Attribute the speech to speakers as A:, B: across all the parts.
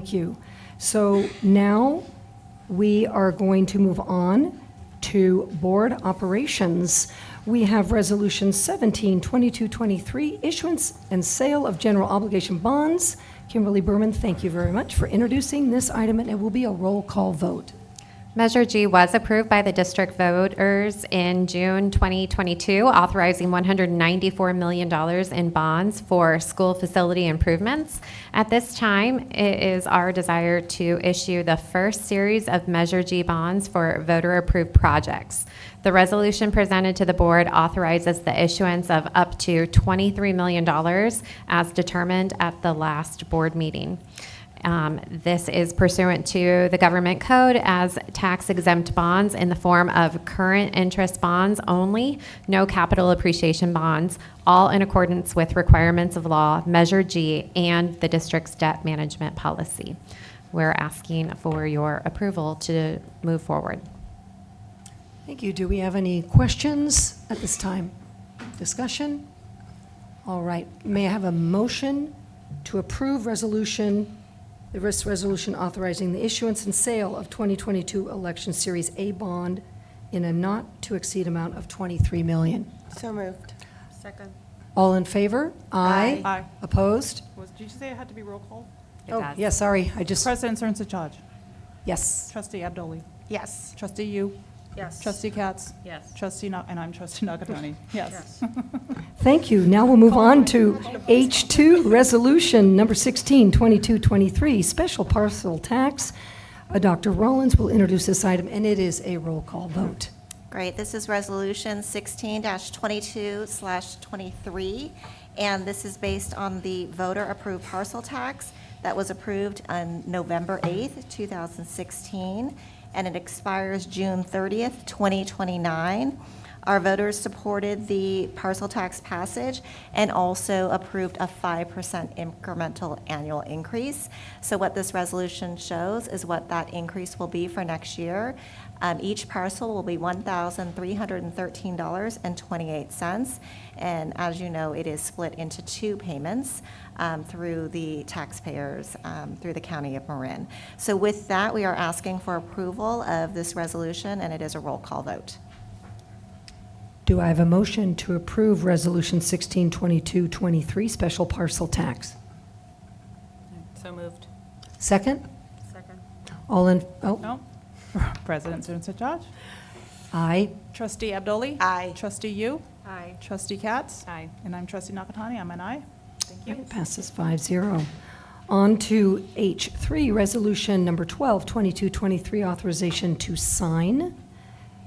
A: Thank you. So now we are going to move on to board operations. We have Resolution 17, 22, 23, issuance and sale of general obligation bonds. Kimberly Berman, thank you very much for introducing this item, and it will be a roll call vote.
B: Measure G was approved by the district voters in June 2022, authorizing $194 million in bonds for school facility improvements. At this time, it is our desire to issue the first series of Measure G bonds for voter-approved projects. The resolution presented to the board authorizes the issuance of up to $23 million as determined at the last board meeting. Um, This is pursuant to the government code as tax exempt bonds in the form of current interest bonds only, no capital appreciation bonds, all in accordance with requirements of law, Measure G, and the district's debt management policy. We're asking for your approval to move forward.
A: Thank you. Do we have any questions at this time? Discussion? All right. May I have a motion to approve resolution, the risk resolution authorizing the issuance and sale of 2022 election series A bond in a not-to-exceed amount of 23 million?
C: So moved.
D: Second.
A: All in favor? Aye.
D: Aye.
A: Opposed?
E: Was, did you say it had to be roll call?
B: It
A: Oh,
B: does.
A: yeah, sorry. I just,
E: President Cernsa Chaj.
A: yes.
E: Trustee Abdoli.
C: Yes.
E: Trustee Yu.
D: Yes.
E: Trustee Katz.
D: Yes.
E: Trustee, Na- and I'm trustee Nakatani. Yes.
A: Thank you. Now we'll move on to H2, Resolution Number 16, 2223, Special Parcel Tax. Uh, Dr. Rollins will introduce this item, and it is a roll call vote.
C: Great, this is Resolution 16-22/23, and this is based on the voter-approved parcel tax that was approved on November 8th, 2016, and it expires June 30th, 2029. Our voters supported the parcel tax passage and also approved a 5% incremental annual increase. So what this resolution shows is what that increase will be for next year. Um, Each parcel will be $1,313.28. And as you know, it is split into two payments um, through the taxpayers, um, through the county of Marin. So with that, we are asking for approval of this resolution, and it is a roll call vote.
A: Do I have a motion to approve Resolution 16, 2223, Special Parcel Tax?
D: So moved.
A: Second?
D: Second.
A: All in, oh,
E: No? President Cernsa Chaj.
A: aye.
E: Trustee Abdoli.
C: Aye.
E: Trustee Yu.
D: Aye.
E: Trustee Katz.
D: Aye.
E: And I'm trustee Nakatani. I'm an aye.
A: It passes 5-0. On to H3, Resolution Number 12, 2223, authorization to sign.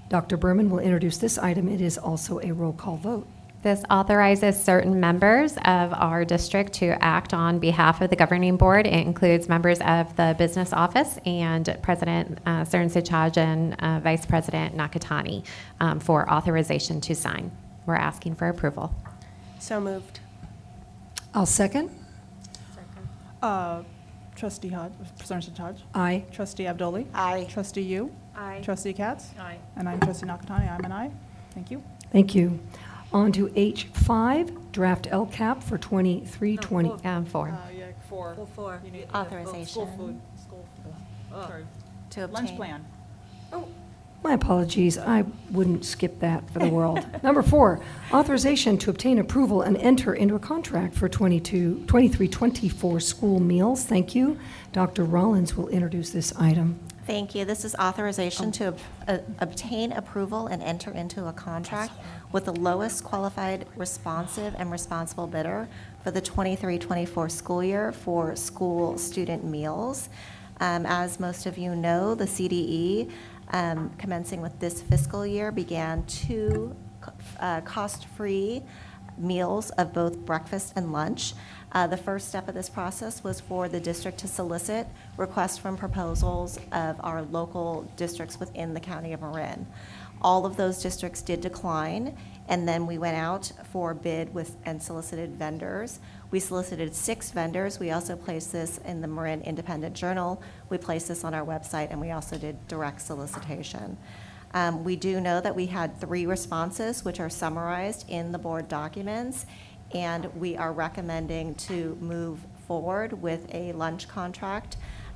A: Dr. Berman will introduce this item. It is also a roll call vote.
B: This authorizes certain members of our district to act on behalf of the governing board. It includes members of the business office and President uh, Cern Sechaj and uh, Vice President Nakatani um, for authorization to sign. We're asking for approval.
C: So moved.
A: I'll second.
E: Uh, Trustee Hodge, Cernsa Chaj.
A: Aye.
E: Trustee Abdoli.
C: Aye.
E: Trustee Yu.
D: Aye.
E: Trustee Katz.
D: Aye.
E: And I'm trustee Nakatani. I'm an aye. Thank you.
A: Thank you. On to H5, draft LCAP for 2320.
B: Um, for.
E: Uh, yeah, four.
D: Full four.
E: You need- oh, School
C: Authorization.
E: food, school, sorry.
C: To
E: Lunch
C: obtain.
E: plan.
A: My apologies, I wouldn't skip that for the world. Number four, authorization to obtain approval and enter into a contract for 22, 2324 school meals. Thank you. Dr. Rollins will introduce this item.
C: Thank you. This is authorization to ob- uh, obtain approval and enter into a contract with the lowest qualified responsive and responsible bidder for the 23-24 school year for school student meals. Um, As most of you know, the CDE um, commencing with this fiscal year began two co- uh, cost-free meals of both breakfast and lunch. Uh, The first step of this process was for the district to solicit requests from proposals of our local districts within the county of Marin. All of those districts did decline, and then we went out for bid with, and solicited vendors. We solicited six vendors. We also placed this in the Marin Independent Journal. We placed this on our website, and we also did direct solicitation. Um, We do know that we had three responses, which are summarized in the board documents, and we are recommending to move forward with a lunch contract